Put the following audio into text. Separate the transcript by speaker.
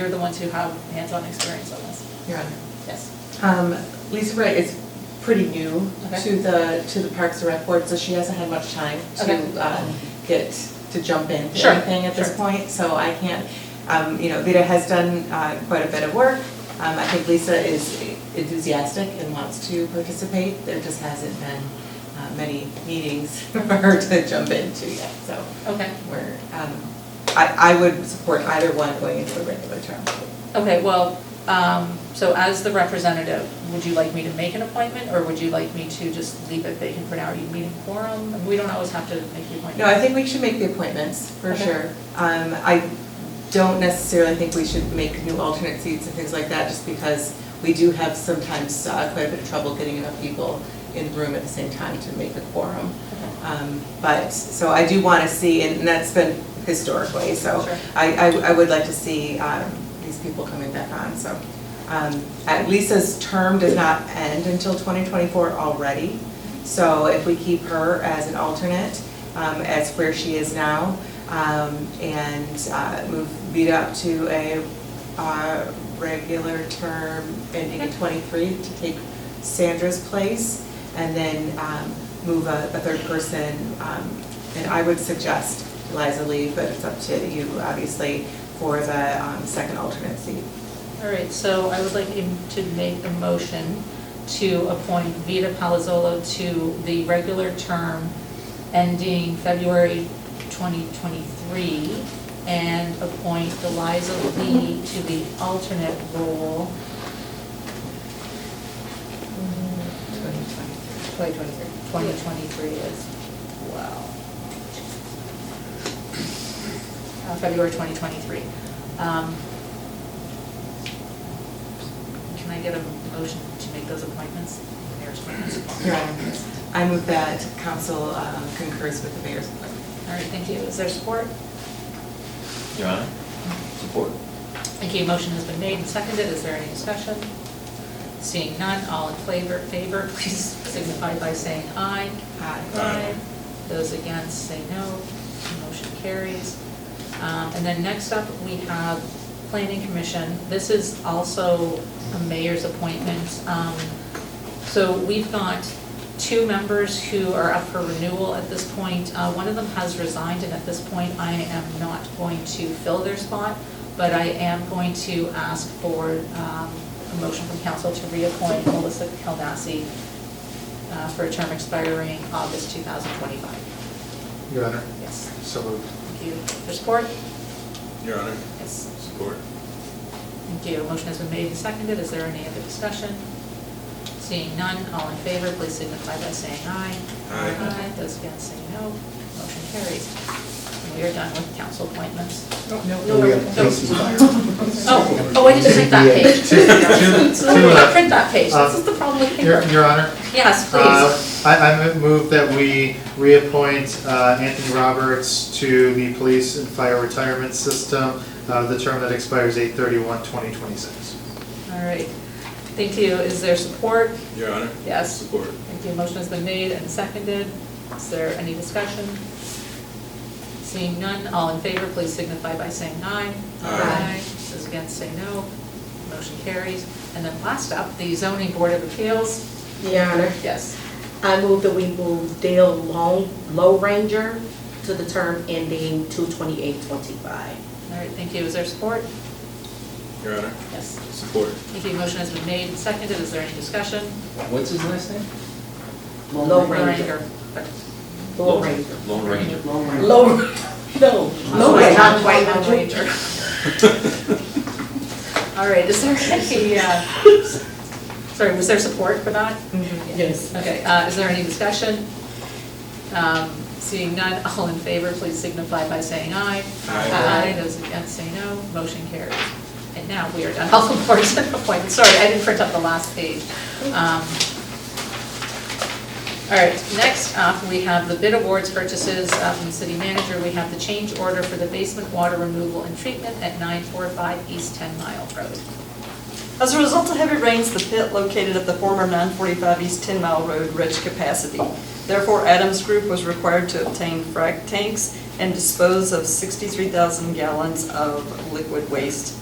Speaker 1: You're the ones who have hands-on experience on this.
Speaker 2: Your Honor.
Speaker 1: Yes.
Speaker 2: Um, Lisa Wright is pretty new
Speaker 1: Okay.
Speaker 2: to the, to the Parks and Rec Board, so she hasn't had much time
Speaker 1: Okay.
Speaker 2: to, uh, get, to jump into
Speaker 1: Sure,
Speaker 2: anything at this
Speaker 1: sure.
Speaker 2: point, so I can't, um, you know, Vida has done, uh, quite a bit of work. Um, I think Lisa is enthusiastic and wants to participate, there just hasn't been, uh, many meetings for her to jump into yet, so
Speaker 1: Okay,
Speaker 2: we're, um, I, I would support either one going into a regular term.
Speaker 1: okay, well, um, so as the representative, would you like me to make an appointment, or would you like me to just leave it vacant for now? Are you meeting quorum? We don't always have to make the appointment.
Speaker 2: No, I think we should make the appointments, for
Speaker 1: Okay.
Speaker 2: sure. Um, I don't necessarily think we should make new alternate seats and things like that, just because we do have sometimes uh, quite a bit of trouble getting enough people in the room at the same time to make a quorum. Um, but, so I do wanna see, and that's been historically, so
Speaker 1: Sure.
Speaker 2: I, I, I would like to see, um, these people coming back on, so. Um, uh, Lisa's term does not end until twenty twenty-four already, so if we keep her as an alternate, um, as where she is now, um, and, uh, move Vida up to a, uh, regular term ending in
Speaker 1: Okay.
Speaker 2: twenty-three to take Sandra's place, and then, um, move a, a third person, um, and I would suggest Eliza Lee, but it's up to you, obviously, for the, um, second alternate seat.
Speaker 1: All right, so I would like him to make a motion to appoint Vita Palazzolo to the regular term ending February 2023, and appoint Eliza Lee to the alternate role. Twenty twenty-three. Twenty twenty-three is, wow. Uh, February twenty twenty-three. Um, can I get a motion to make those appointments? Mayor's appointments.
Speaker 2: Your Honor, I move that council um, concurs with the mayor's appointment.
Speaker 1: All right, thank you. Is there support?
Speaker 3: Your Honor, support.
Speaker 1: Thank you. Motion has been made and seconded. Is there any discussion? Seeing none, all in favor, favor, please signify by saying aye.
Speaker 2: Aye.
Speaker 3: Aye.
Speaker 1: Those against say no. Motion carries. Um, And then next up, we have Planning Commission. This is also a mayor's appointment. Um, So we've got two members who are up for renewal at this point. Uh, One of them has resigned, and at this point, I am not going to fill their spot, but I am going to ask for um, a motion from council to reappoint Melissa Kaldasi uh, for a term expiring August 2025.
Speaker 4: Your Honor,
Speaker 1: Yes,
Speaker 4: so moved.
Speaker 1: thank you. For support?
Speaker 3: Your Honor,
Speaker 1: Yes,
Speaker 3: support.
Speaker 1: thank you. Motion has been made and seconded. Is there any other discussion? Seeing none, all in favor, please signify by saying aye.
Speaker 3: Aye.
Speaker 1: Those against say no. Motion carries. And We are done with council appointments.
Speaker 4: And we have
Speaker 1: no.
Speaker 4: Casey Meyer.
Speaker 1: Oh, oh, I didn't print that page.
Speaker 4: Two- two-
Speaker 1: So we
Speaker 4: two, uh,
Speaker 1: don't print that page. This is the problem with
Speaker 4: Your,
Speaker 1: paper.
Speaker 4: Your Honor,
Speaker 1: Yes,
Speaker 4: uh,
Speaker 1: please.
Speaker 4: I, I move that we reappoint uh, Anthony Roberts to the Police and Fire Retirement System, uh, the term that expires 8 2026
Speaker 1: All right. Thank you. Is there support?
Speaker 3: Your Honor,
Speaker 1: Yes.
Speaker 3: support.
Speaker 1: Thank you. Motion has been made and seconded. Is there any discussion? Seeing none, all in favor, please signify by saying aye.
Speaker 3: Aye.
Speaker 1: Those against say no. Motion carries. And then last up, the zoning board of appeals.
Speaker 5: Your Honor,
Speaker 1: Yes.
Speaker 5: I move that we move Dale Long, Low Ranger, to the term ending two twenty-eight twenty-five.
Speaker 1: All right, thank you. Is there support?
Speaker 3: Your Honor,
Speaker 1: Yes.
Speaker 3: support.
Speaker 1: Thank you. Motion has been made and seconded. Is there any discussion?
Speaker 6: What's his last name?
Speaker 5: Low Ranger. Low Ranger.
Speaker 6: Lone Ranger.
Speaker 5: Low, no, Low Ranger, not White Ranger.
Speaker 1: All right, is there any, uh, sorry, was there support for that?
Speaker 5: Yes.
Speaker 1: Okay, uh, is there any discussion? Um, Seeing none, all in favor, please signify by saying aye.
Speaker 3: Aye.
Speaker 1: Those against say no, motion carries. And now we are done, all the boards and appointments, sorry, I didn't print up the last page. Um, All right, next up, we have the bid awards purchases uh, from the city manager. We have the change order for the basement water removal and treatment at 945 East 10 Mile Road.
Speaker 7: As a result of heavy rains, the pit located at the former 945 East 10 Mile Road reached capacity. Therefore, Adams Group was required to obtain frac tanks and dispose of 63,000 gallons of liquid waste.